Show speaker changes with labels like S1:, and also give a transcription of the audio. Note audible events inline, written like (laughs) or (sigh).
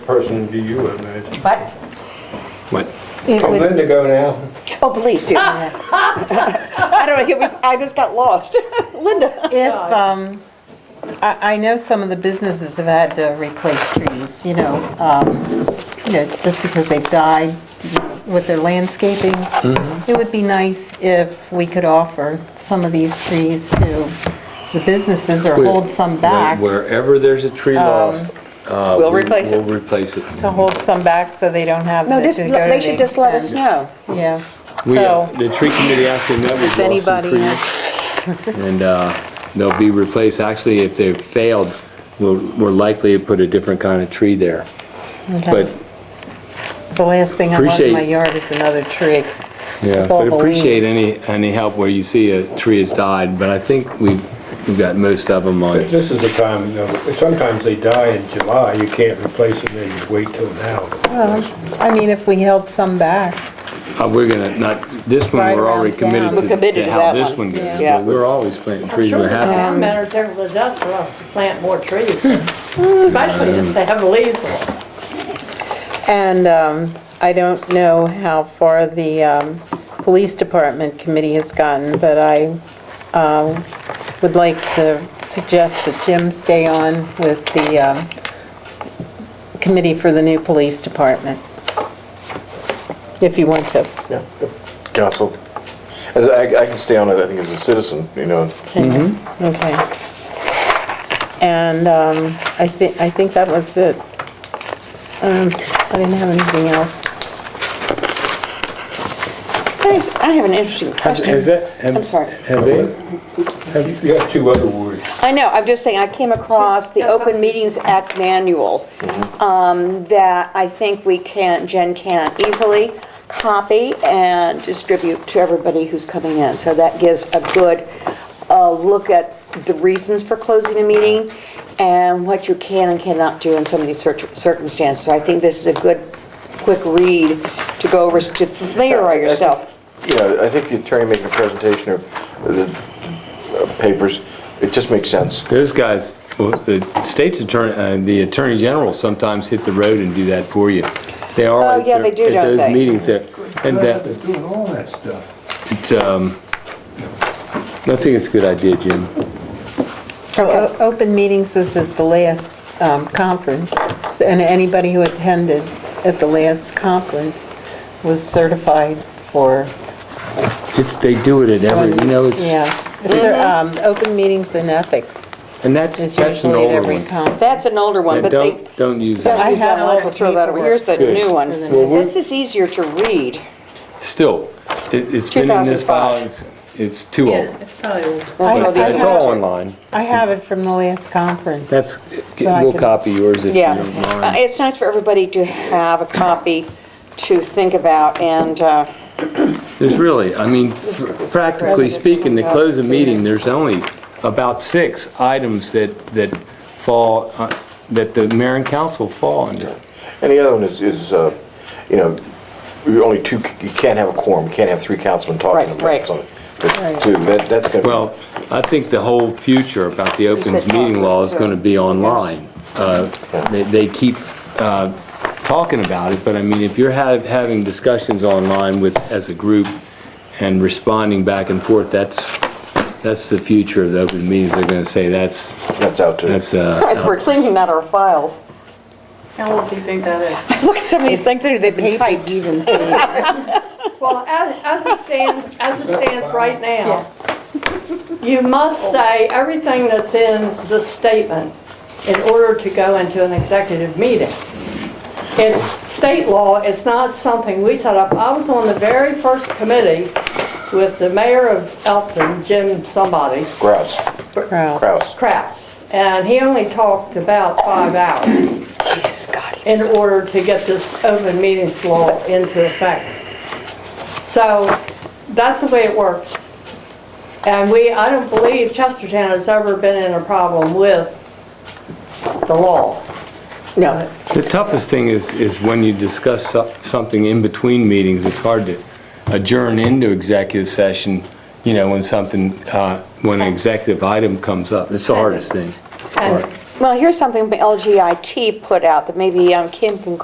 S1: person do you imagine?
S2: What?
S1: What?
S3: It
S1: I'm
S3: would-
S1: letting it go now.
S2: Oh, please
S4: (laughs)
S2: do. I don't know, here we- I just got lost. Linda?
S3: If, um, I, I know some of the businesses have had to replace trees, you know, um, you know, just because they've died with their landscaping.
S5: Mm-hmm.
S3: It would be nice if we could offer some of these trees to the businesses or hold some back, Um,
S5: Wherever there's a tree lost. uh,
S2: (laughs) We'll
S5: we-
S2: replace it.
S5: We'll replace it.
S3: to hold some back so they don't have.
S2: No,
S3: to
S2: just,
S3: go
S2: let-
S3: to
S2: make sure
S3: the
S2: just let us
S3: expense.
S2: know.
S3: Yeah,
S5: We, uh,
S3: so,
S5: The tree committee actually met with
S3: if
S5: Ross and
S3: anybody,
S5: Freed, and uh, they'll be replaced, actually, if they've failed, we'll- we're likely to put a different kind of tree there. But,
S3: it's the last thing I want in
S5: Appreciate-
S3: my yard is another tree.
S5: yeah,
S3: all
S5: but
S3: the
S5: appreciate
S3: leaves.
S5: any, any help where you see a tree has died, but I think we've, we've got most of them on.
S1: This is the time, you know, sometimes they die in July, you can't replace them, then you wait till now.
S3: I mean, if we held some back.
S5: Uh, We're gonna, not, this one,
S3: Right
S5: we're already
S3: around town.
S5: committed
S3: We're
S5: to-
S2: committed
S5: to
S2: to
S5: how
S2: that
S5: this
S2: one.
S5: one goes.
S2: Yeah.
S5: but We're always planting
S4: I'm
S5: trees,
S4: sure
S5: we're
S4: the
S5: happy.
S4: town manager would love for us to plant more trees,
S2: Hmm.
S4: especially if they have leaves.
S3: And um, I don't know how far the um, Police Department Committee has gotten, but I um, would like to suggest that Jim stay on with the um, committee for the new police department, if you want to.
S6: Yeah, council. As I I can stay on it, I think, as a citizen, you know.
S3: Okay. And um, I think, I think that was it. Um, I didn't have anything else.
S2: Thanks, I have an interesting question. I'm sorry.
S5: Have they?
S1: You have two other words.
S2: I know, I'm just saying, I came across the
S4: That's
S2: Open
S4: okay.
S2: Meetings Act manual um, that I think we can, Jen can easily copy and distribute to everybody who's coming in. So that gives a good uh, look at the reasons for closing a meeting and what you can and cannot do in some of these cir- circumstances. So I think this is a good, quick read to go over, to familiarize yourself.
S6: Yeah, I think the attorney making a presentation of the uh, papers, it just makes sense.
S5: Those guys, well, the state's attorney, uh, the attorney general sometimes hit the road and do that for you. They are.
S2: Oh,
S5: at
S2: yeah,
S5: their-
S2: they do, don't
S5: At
S2: they?
S5: those meetings there. And that,
S1: doing all that stuff.
S5: it, um, I think it's a good idea, Jim.
S3: Oh, o- Open meetings was at the last um, conference, and anybody who attended at the last conference was certified for,
S5: It's, they do it at every, you know,
S3: yeah.
S5: it's,
S3: Cer-
S4: Mm-hmm.
S3: um, Open meetings and ethics
S5: and that's,
S3: is
S5: that's an
S3: usually at
S5: older
S3: every
S5: one.
S3: conference.
S2: That's an older one,
S5: And
S2: but they...
S5: don't, don't use
S2: Don't
S3: I
S5: that.
S2: use that
S3: have
S2: one,
S3: all
S2: so
S3: the
S2: throw that away. Here's the
S5: Good.
S2: new one.
S5: Well, we're-
S2: This is easier to read.
S5: Still, it- it's been in this file, it's, it's too old.
S4: It's probably old.
S2: We'll throw
S3: I-
S2: these
S5: It's
S2: away.
S5: all online.
S3: I have it from the last conference.
S5: That's,
S3: So I
S5: we'll
S3: can-
S5: copy yours if you
S2: Yeah.
S5: don't mind.
S2: Uh, It's nice for everybody to have a copy to think about and, uh,
S5: There's really, I mean, practically speaking, to close a meeting, there's only about six items that, that fall, uh, that the mayor and council fall under.
S6: And the other one is, is, uh, you know, you're only two, you can't have a quorum, you can't have three councilmen
S2: Right,
S6: talking
S2: right.
S6: about something. But, too, that- That's going to...
S5: Well, I think the whole future about the
S2: said
S5: open meeting law is
S2: process,
S5: going to be online. Uh, They they keep uh, talking about it, but I mean, if you're hav- having discussions online with, as a group, and responding back and forth, that's, that's the future of the open meetings. They're going to say, that's,
S6: That's out to...
S5: that's uh,
S2: as we're cleaning out our files.
S4: How old do you think that
S2: (laughs)
S4: is?
S2: Look at some of these things, they've been
S3: Papers
S2: typed.
S3: even thin.
S4: Well, as, as it stands, as it stands right now, you must say everything that's in the statement in order to go into an executive meeting. It's state law, it's not something we set up. I was on the very first committee with the mayor of Elton, Jim somebody,
S6: Grouse,
S3: Crowd.
S6: Kraus.
S4: Kraus, and he only talked about five hours
S2: Jesus God.
S4: in order to get this open meetings law into effect. So that's the way it works. And we, I don't believe Chestertown has ever been in a problem with the law.
S2: No,
S5: The toughest thing is, is when you discuss so- something in between meetings, it's hard to adjourn into executive session, you know, when something, uh, when an executive item comes up. It's the hardest thing.
S4: And
S2: Well, here's something LGIT put out that maybe um, Kim can